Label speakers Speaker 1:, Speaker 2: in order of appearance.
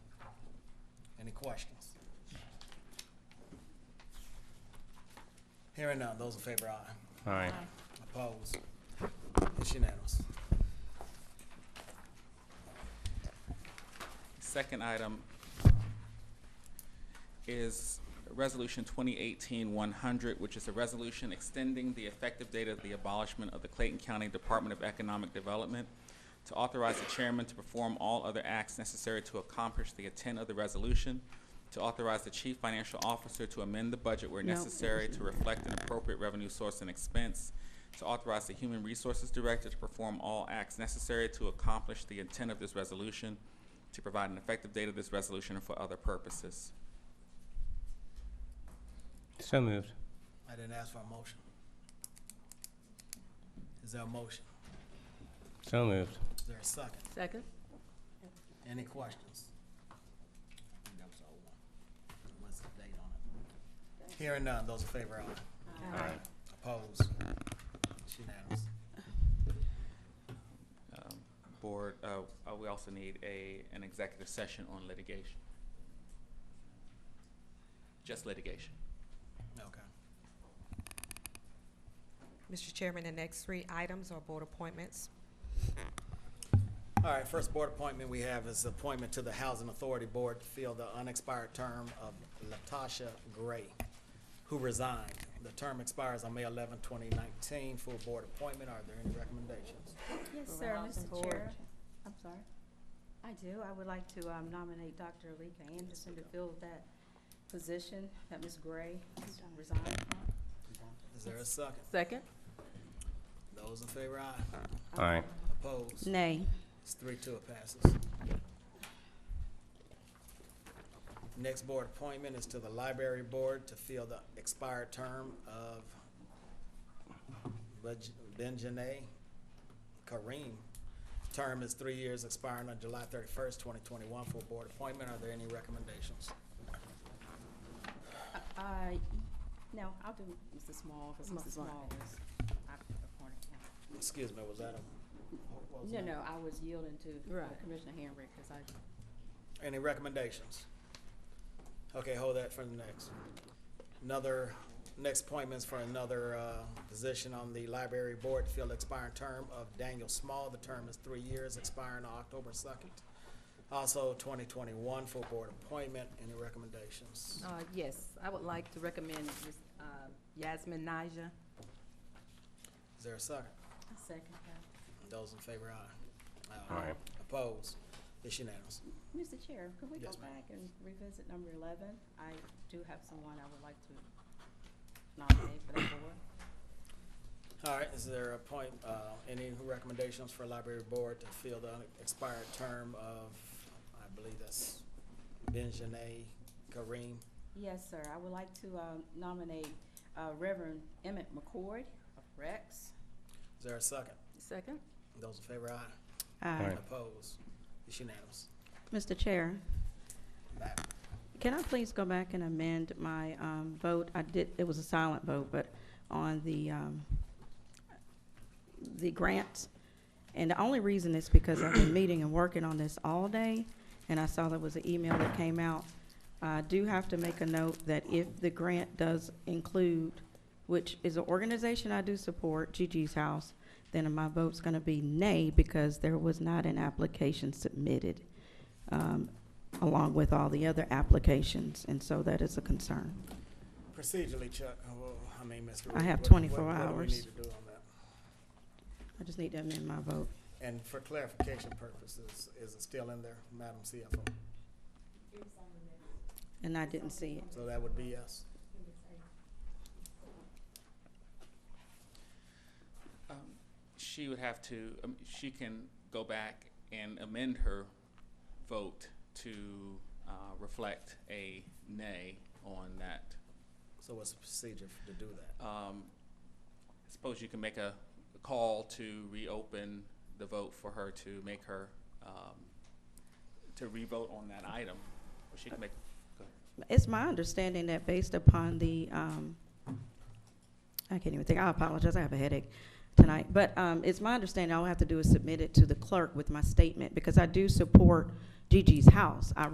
Speaker 1: Any questions? Hearing none, those in favor, aye.
Speaker 2: Aye.
Speaker 1: Opposed? It's unanimous.
Speaker 3: Second item is Resolution 2018-100, which is a resolution extending the effective date of the abolishment of the Clayton County Department of Economic Development to authorize the chairman to perform all other acts necessary to accomplish the intent of the resolution, to authorize the chief financial officer to amend the budget where
Speaker 4: No.
Speaker 3: necessary to reflect an appropriate revenue source and expense, to authorize the human resources director to perform all acts necessary to accomplish the intent of this resolution, to provide an effective date of this resolution for other purposes.
Speaker 2: So moved.
Speaker 1: I didn't ask for a motion. Is there a motion?
Speaker 2: So moved.
Speaker 1: Is there a second?
Speaker 4: Second?
Speaker 1: Any questions? I think that was the old one. What's the date on it? Hearing none, those in favor, aye.
Speaker 2: Aye.
Speaker 1: Opposed? It's unanimous.
Speaker 3: Um, Board, uh, uh, we also need a, an executive session on litigation. Just litigation.
Speaker 1: Okay.
Speaker 5: Mr. Chairman, the next three items are board appointments.
Speaker 1: All right, first board appointment we have is appointment to the Housing Authority Board to fill the unexpired term of Latasha Gray, who resigned. The term expires on May 11, 2019. Full board appointment. Are there any recommendations?
Speaker 6: Yes,
Speaker 4: For
Speaker 6: sir,
Speaker 4: Rouse and
Speaker 6: Mr. Chair.
Speaker 4: Board.
Speaker 6: I'm sorry. I do. I would like to um, nominate Dr. Alika Anderson to fill that position that Ms. Gray resigned from.
Speaker 1: Is there a second?
Speaker 4: Second?
Speaker 1: Those in favor, aye.
Speaker 2: Aye.
Speaker 1: Opposed?
Speaker 6: Nay.
Speaker 1: It's three, two, it passes. Next board appointment is to the Library Board to fill the expired term of Bej- Benjanae Kareem. Term is three years, expiring on July thirty-first, twenty twenty-one, for a board appointment. Are there any recommendations?
Speaker 6: Uh, I, no, I'll do Mr. Small, because
Speaker 4: Small.
Speaker 6: Mr. Small was, I appointed him.
Speaker 1: Excuse me, was that a? what was
Speaker 6: No,
Speaker 1: that?
Speaker 6: no, I was yielding to uh,
Speaker 4: Right.
Speaker 6: Commissioner Henry, because I,
Speaker 1: Any recommendations? Okay, hold that for the next. Another, next appointments for another uh, position on the library board to fill expiring term of Daniel Small. The term is three years, expiring on October second. Also, twenty twenty-one full board appointment. Any recommendations?
Speaker 4: Uh, yes, I would like to recommend Ms. uh, Yasmin Naja.
Speaker 1: Is there a second?
Speaker 6: I second that.
Speaker 1: Those in favor, aye.
Speaker 2: Aye.
Speaker 1: Opposed? It's unanimous.
Speaker 6: Mr. Chair, could we go
Speaker 1: Yes, ma'am.
Speaker 6: back and revisit number eleven? I do have someone I would like to nominate for that board.
Speaker 1: All right, is there a point, uh, any recommendations for library board to fill the expired term of, I believe that's Benjanae Kareem?
Speaker 6: Yes, sir. I would like to um, nominate uh, Reverend Emmett McCord of Rex.
Speaker 1: Is there a second?
Speaker 4: Second?
Speaker 1: Those in favor, aye.
Speaker 2: Aye.
Speaker 1: Opposed? It's unanimous.
Speaker 7: Mr. Chair,
Speaker 1: Madam,
Speaker 7: can I please go back and amend my um, vote? I did, it was a silent vote, but on the, um, the grants. And the only reason is because I've been meeting and working on this all day, and I saw there was an email that came out. I do have to make a note that if the grant does include, which is an organization I do support, Gigi's House, then my vote's gonna be nay because there was not an application submitted. Um, along with all the other applications, and so that is a concern.
Speaker 1: Procedurally, Chuck, uh, well, I mean, Mr.
Speaker 7: I
Speaker 1: Reed,
Speaker 7: have
Speaker 1: what-
Speaker 7: 24
Speaker 1: what- What do we
Speaker 7: hours.
Speaker 1: need to do on that?
Speaker 7: I just need to amend my vote.
Speaker 1: And for clarification purposes, is it still in there, Madam CFO?
Speaker 7: And I didn't see it.
Speaker 1: So that would be yes.
Speaker 3: Um, She would have to, um, she can go back and amend her vote to uh, reflect a nay on that.
Speaker 1: So what's the procedure to do that?
Speaker 3: Um, Suppose you can make a call to reopen the vote for her to make her, um, to revote on that item. Or she can make, go ahead.
Speaker 7: It's my understanding that based upon the, um, I can't even think, I apologize, I have a headache tonight. But, um, it's my understanding all I have to do is submit it to the clerk with my statement, because I do support Gigi's House. I